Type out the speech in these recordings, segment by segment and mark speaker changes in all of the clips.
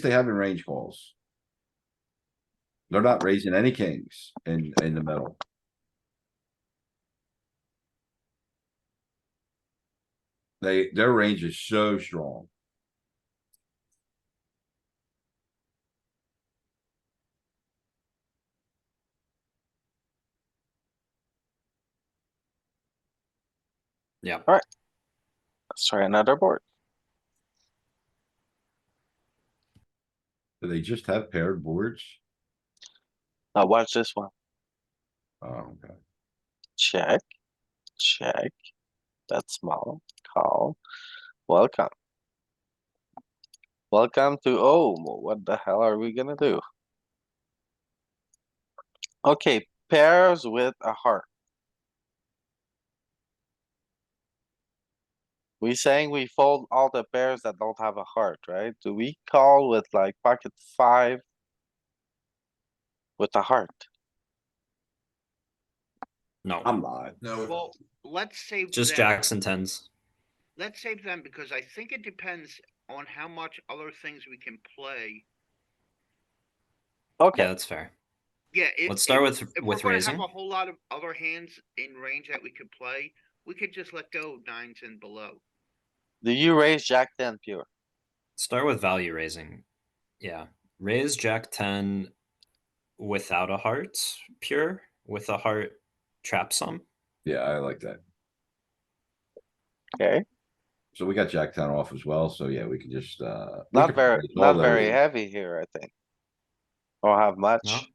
Speaker 1: they have in range calls. They're not raising any kings in, in the middle. They, their range is so strong.
Speaker 2: Let's try another board.
Speaker 1: Do they just have paired boards?
Speaker 2: Now watch this one.
Speaker 1: Oh, okay.
Speaker 2: Check. Check. That's small. Call. Welcome. Welcome to, oh, what the hell are we gonna do? Okay, pairs with a heart. We saying we fold all the pairs that don't have a heart, right? Do we call with like pocket five? With a heart?
Speaker 3: No,
Speaker 1: I'm not.
Speaker 3: no,
Speaker 4: Well, let's save
Speaker 3: Um, just
Speaker 4: them.
Speaker 3: jacks and tens.
Speaker 4: Let's save them because I think it depends on how much other things we can play.
Speaker 3: Yeah,
Speaker 2: Okay,
Speaker 3: that's fair.
Speaker 4: Yeah. if-
Speaker 3: Let's start with
Speaker 4: if- If we're
Speaker 3: with
Speaker 4: gonna have
Speaker 3: raising.
Speaker 4: a whole lot of other hands in range that we could play, we could just let go of nines and below.
Speaker 2: do you raise jack ten pure?
Speaker 3: Start with value raising. Yeah, raise jack ten without a heart pure with a heart trap some.
Speaker 1: Yeah, I like that.
Speaker 2: Okay.
Speaker 1: So we got Jack ten off as well, so yeah, we can just, uh. we
Speaker 2: Not
Speaker 1: could
Speaker 2: very,
Speaker 1: raise all
Speaker 2: not
Speaker 1: those.
Speaker 2: very heavy here, I think. Or have much,
Speaker 1: We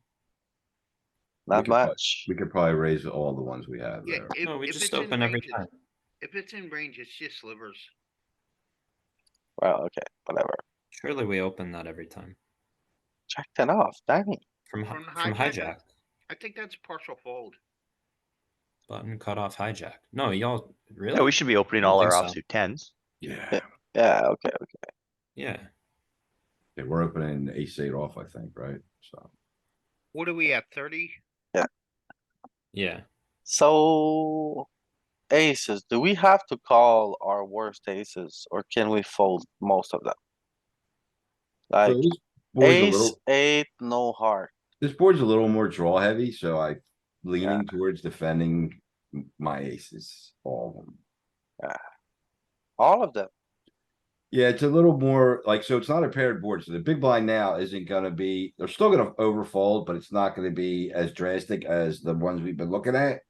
Speaker 2: not
Speaker 1: could put-
Speaker 2: much.
Speaker 1: We could probably raise all the ones we have
Speaker 4: Yeah.
Speaker 1: there.
Speaker 4: if-
Speaker 3: No, we
Speaker 4: if
Speaker 3: just
Speaker 4: it's in
Speaker 3: open every
Speaker 4: range, it's-
Speaker 3: time.
Speaker 4: If it's in range, it's just slivers.
Speaker 2: Well, okay, whatever.
Speaker 3: Surely we open that every time
Speaker 2: Check ten off, dang it.
Speaker 3: from hi-
Speaker 4: From
Speaker 3: from
Speaker 4: hijack.
Speaker 3: hijack
Speaker 4: I think that's partial fold.
Speaker 3: button cut off hijack. No, y'all really?
Speaker 5: Yeah, we should be opening
Speaker 3: don't
Speaker 5: all our
Speaker 3: think so.
Speaker 5: offsuit tens.
Speaker 1: Yeah,
Speaker 2: Yeah, okay,
Speaker 3: Yeah,
Speaker 1: Yeah, we're opening ace eight off, I think, right? So.
Speaker 4: What are we at, thirty?
Speaker 3: yeah.
Speaker 2: so. Aces, do we have to call our worst aces or can we fold most of them?
Speaker 1: So
Speaker 2: Like
Speaker 1: this board's a
Speaker 2: ace,
Speaker 1: little-
Speaker 2: eight, no heart.
Speaker 1: This board's a little more draw heavy, so I leaning towards defending m- my aces, all of them.
Speaker 2: All of them,
Speaker 1: Yeah, it's a little more like, so it's not a paired board, so the big blind now isn't gonna be, they're still gonna overfold, but it's not gonna be as drastic as the ones we've been looking at.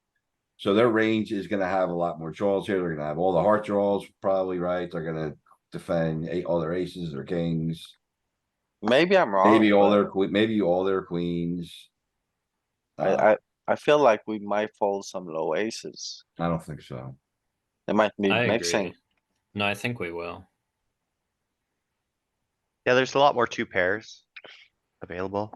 Speaker 1: So their range is gonna have a lot more draws here. They're gonna have all the heart draws, probably, right? They're gonna defend eight, all their aces, their kings,
Speaker 2: maybe I'm wrong.
Speaker 1: maybe all
Speaker 2: but
Speaker 1: their que- maybe all their queens. Uh,
Speaker 2: I, I, I feel like we might fold some low aces.
Speaker 1: I don't think so.
Speaker 2: It might be
Speaker 3: I
Speaker 2: mixing.
Speaker 3: agree. No, I think we will.
Speaker 5: Yeah, there's a lot more two pairs available.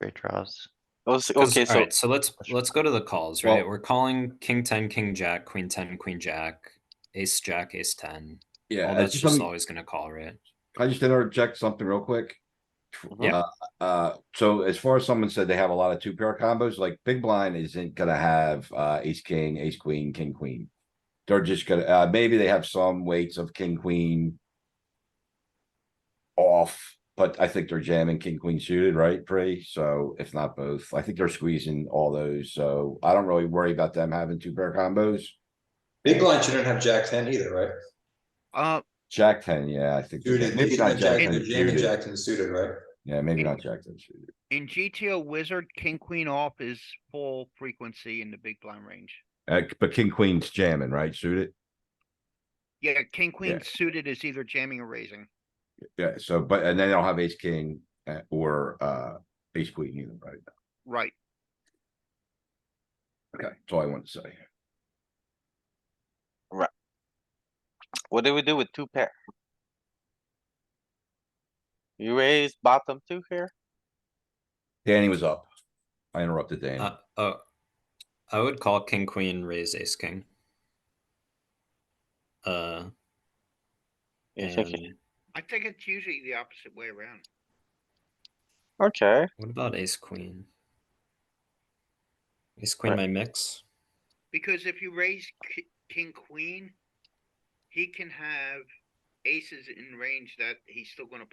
Speaker 5: Great draws.
Speaker 2: Okay,
Speaker 3: 'Cause-
Speaker 2: okay, so
Speaker 3: alright, so let's let's go to the calls,
Speaker 1: Well-
Speaker 3: right? We're calling king ten, king jack, queen ten, queen jack, ace jack, ace ten.
Speaker 1: Yeah.
Speaker 3: All
Speaker 1: it's
Speaker 3: that's
Speaker 1: just
Speaker 3: just
Speaker 1: something-
Speaker 3: always gonna call, right?
Speaker 1: Can I just interject something real quick?
Speaker 3: Yeah.
Speaker 1: Uh, Uh, so as far as someone said, they have a lot of two pair combos, like big blind isn't gonna have, uh, ace, king, ace, queen, king, queen. They're just gonna, uh, maybe they have some weights of king, queen. Off, but I think they're jamming king, queen suited, right, Pre? So if not both, I think they're squeezing all those, so I don't really worry about them having two pair combos.
Speaker 6: Big blind shouldn't have jack ten either, right?
Speaker 4: Uh,
Speaker 1: Jack ten, yeah, I think, they're
Speaker 6: Suited,
Speaker 1: jam-
Speaker 6: maybe
Speaker 1: maybe not
Speaker 6: jack,
Speaker 1: jack
Speaker 6: jack,
Speaker 1: ten
Speaker 6: jamming
Speaker 1: suited,
Speaker 6: jack ten suited, right?
Speaker 1: yeah, maybe not jack ten suited.
Speaker 4: in GTO wizard, king, queen off is full frequency in the big blind range.
Speaker 1: Uh, but king queen's jamming, right? Shoot it.
Speaker 4: Yeah, king, queen suited is either jamming or raising.
Speaker 1: Yeah, Uh, so, but, and then they don't have ace king uh, or, uh, ace queen either, right?
Speaker 4: Right.
Speaker 1: Okay, that's all I wanted to say.
Speaker 2: What do we do with two pair? You raise bottom two here?
Speaker 1: Danny was up. I interrupted Danny.
Speaker 3: Uh, oh, I would call king queen raise ace king. Uh,
Speaker 2: You think-
Speaker 3: and
Speaker 4: I think it's usually the opposite way around.
Speaker 2: Okay,
Speaker 3: what about ace queen? Ace queen,
Speaker 2: Right.
Speaker 3: my mix.
Speaker 4: Because if you raise ki- king, queen, he can have aces in range that he's still gonna